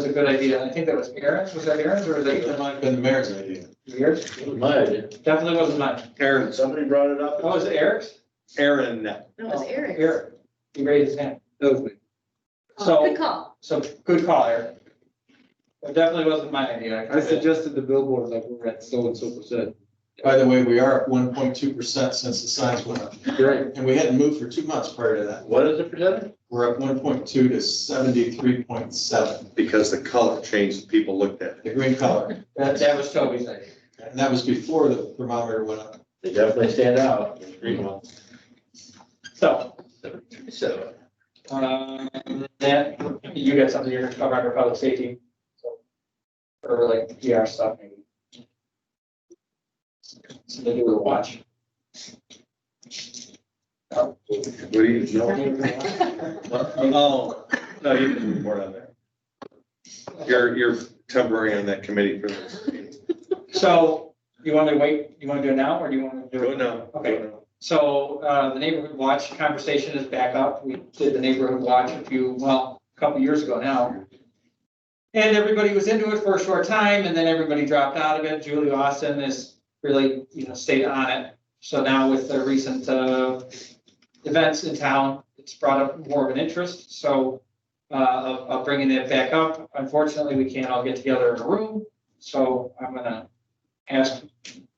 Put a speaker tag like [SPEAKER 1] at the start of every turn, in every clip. [SPEAKER 1] a good idea. I think that was Aaron's, was that Aaron's or was that
[SPEAKER 2] That
[SPEAKER 1] yours?
[SPEAKER 2] might have been the mayor's idea.
[SPEAKER 1] yours?
[SPEAKER 3] My idea.
[SPEAKER 1] Definitely wasn't mine.
[SPEAKER 2] Aaron's,
[SPEAKER 3] Somebody brought it up.
[SPEAKER 1] Oh, was it Eric's?
[SPEAKER 2] Aaron.
[SPEAKER 4] No, it's
[SPEAKER 1] Oh,
[SPEAKER 4] Eric's.
[SPEAKER 1] Eric, he raised his hand.
[SPEAKER 4] Oh,
[SPEAKER 1] So,
[SPEAKER 4] Good call.
[SPEAKER 1] so good call, Eric. It definitely wasn't my idea.
[SPEAKER 5] I suggested the billboard like we're at so and so percent.
[SPEAKER 2] By the way, we are at one point two percent since the signs went up,
[SPEAKER 5] Right.
[SPEAKER 2] and we hadn't moved for two months prior to that.
[SPEAKER 3] What is the percentage?
[SPEAKER 2] We're at one point two to seventy-three point seven,
[SPEAKER 6] Because the color changed, people looked at it.
[SPEAKER 2] the green color.
[SPEAKER 1] That, that was Toby's idea.
[SPEAKER 2] And that was before the thermometer went up.
[SPEAKER 3] They definitely stand out. Green one.
[SPEAKER 1] So,
[SPEAKER 3] So,
[SPEAKER 1] um, then you got something you're gonna cover under public safety. so, Or like PR stuff maybe. Something to do with watch. No.
[SPEAKER 6] What do you know?
[SPEAKER 2] Oh,
[SPEAKER 6] No, you can report on that. You're, you're temporary on that committee for this.
[SPEAKER 1] So you want to wait, you want to do it now or do you want to do it?
[SPEAKER 6] Go now.
[SPEAKER 1] Okay. So uh, the neighborhood watch conversation is back up. We did the neighborhood watch a few, well, a couple years ago now. And everybody was into it for a short time and then everybody dropped out of it. Julie Austin is really, you know, stayed on it. So now with the recent uh, events in town, it's brought up more of an interest. So uh, of of bringing it back up. Unfortunately, we can't all get together in a room. So I'm gonna ask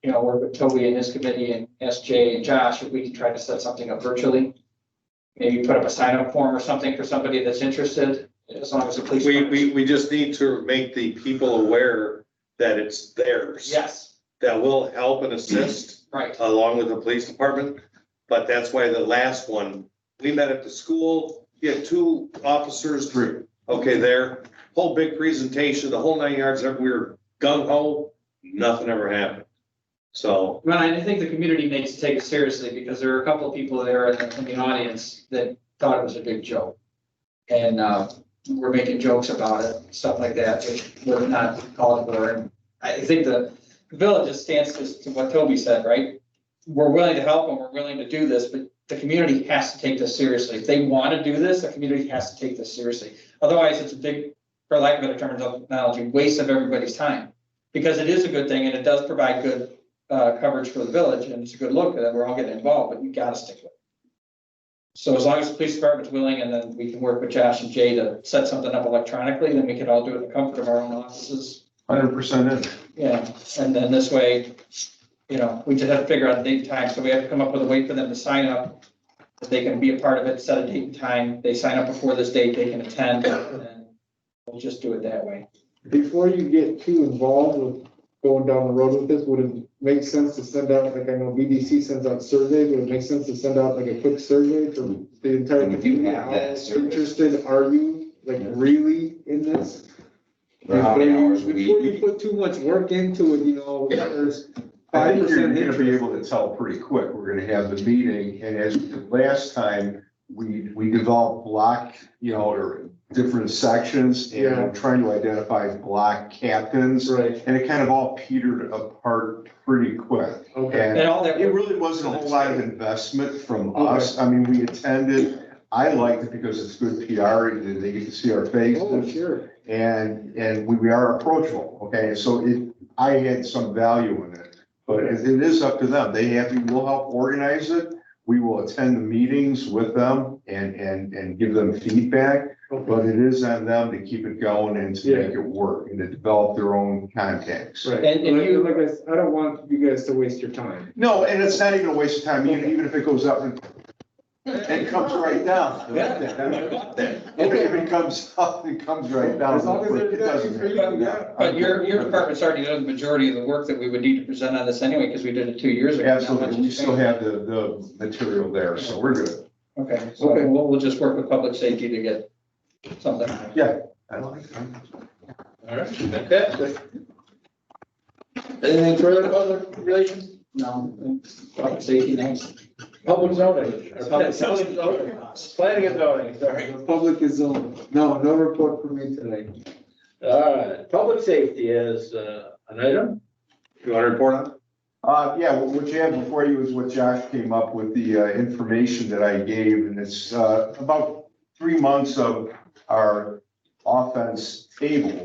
[SPEAKER 1] you know, work with Toby and his committee and SJ and Josh, if we can try to set something up virtually. Maybe put up a sign up form or something for somebody that's interested, as long as the police.
[SPEAKER 6] We, we, we just need to make the people aware that it's theirs.
[SPEAKER 1] Yes,
[SPEAKER 6] That will help and assist
[SPEAKER 1] right,
[SPEAKER 6] along with the police department. But that's why the last one, we met at the school, you had two officers,
[SPEAKER 2] Drew.
[SPEAKER 6] okay, there, whole big presentation, the whole nine yards, we were gung ho, nothing ever happened. So,
[SPEAKER 1] Well, I think the community needs to take it seriously, because there are a couple of people there in the, in the audience that thought it was a big joke. And, uh, were making jokes about it, stuff like that, which were not called for, and I think the village just stands to, to what Toby said, right? We're willing to help and we're willing to do this, but the community has to take this seriously, if they wanna do this, the community has to take this seriously. Otherwise, it's a big, for lack of a better term, technology, waste of everybody's time, because it is a good thing and it does provide good uh, coverage for the village, and it's a good look, and we're all getting involved, but we gotta stick with it. So as long as the police department's willing, and then we can work with Josh and Jay to set something up electronically, then we can all do it in the comfort of our own offices.
[SPEAKER 5] Hundred percent in.
[SPEAKER 1] You know, and then this way, you know, we just have to figure out a date and time, so we have to come up with a way for them to sign up. That they can be a part of it, set a date and time, they sign up before this date, they can attend, and we'll just do it that way.
[SPEAKER 5] Before you get too involved with going down the road with this, would it make sense to send out, like I know BDC sends out surveys, would it make sense to send out like a quick survey to the entire
[SPEAKER 7] And if you
[SPEAKER 5] community?
[SPEAKER 7] have
[SPEAKER 5] How
[SPEAKER 7] that survey.
[SPEAKER 5] Interested are you, like really in this?
[SPEAKER 7] For how many hours a
[SPEAKER 5] Before
[SPEAKER 7] week?
[SPEAKER 5] you put too much work into it, you know, there's five percent
[SPEAKER 8] You're gonna be
[SPEAKER 5] interest.
[SPEAKER 8] able to tell pretty quick. We're gonna have the meeting, and as we did last time, we, we developed block, you know, or different sections, and
[SPEAKER 5] Yeah.
[SPEAKER 8] I'm trying to identify block captains,
[SPEAKER 5] Right,
[SPEAKER 8] and it kind of all petered apart pretty quick.
[SPEAKER 5] okay,
[SPEAKER 8] And
[SPEAKER 1] And all that.
[SPEAKER 8] it really wasn't a whole lot of investment from us. I mean, we attended. I liked it because it's good PR, and they get to see our faces.
[SPEAKER 5] oh, sure.
[SPEAKER 8] And, and we, we are approachable, okay, so it, I had some value in it. But it it is up to them, they have, to- we'll help organize it, we will attend the meetings with them and, and, and give them feedback. But it is on them to keep it going and to make it work and to develop their own contacts.
[SPEAKER 5] Right,
[SPEAKER 1] And- and
[SPEAKER 5] Like-
[SPEAKER 1] you-
[SPEAKER 5] like I, s- I don't want you guys to waste your time.
[SPEAKER 8] No, and it's not even a waste of time, even, even if it goes up and, and comes right down. If it- if it comes up, it comes right down.
[SPEAKER 5] As long as
[SPEAKER 8] It
[SPEAKER 5] there's
[SPEAKER 8] doesn't-
[SPEAKER 5] nothing for you, yeah.
[SPEAKER 1] But your, your department's already done the majority of the work that we would need to present on this anyway, because we did it two years ago. Not much
[SPEAKER 8] Absolutely, we
[SPEAKER 1] has
[SPEAKER 8] still
[SPEAKER 1] changed.
[SPEAKER 8] have the, the material there, so we're good.
[SPEAKER 1] Okay, so
[SPEAKER 5] Okay.
[SPEAKER 1] we'll, we'll just work with public safety to get something.
[SPEAKER 8] I like that.
[SPEAKER 3] all right, fantastic. Anything further about the relations?
[SPEAKER 1] No, public safety next.
[SPEAKER 3] Public zoning. or
[SPEAKER 1] Yeah,
[SPEAKER 3] public-
[SPEAKER 1] zoning.
[SPEAKER 3] Planning and zoning, sorry.
[SPEAKER 5] The Public is on. No, no report from me today.
[SPEAKER 3] All right, public safety is uh, an item.
[SPEAKER 6] you want to report on? it?
[SPEAKER 8] Uh, yeah, what what you had before you was what Josh came up with, the uh, information that I gave, and it's, uh, about three months of our offense table.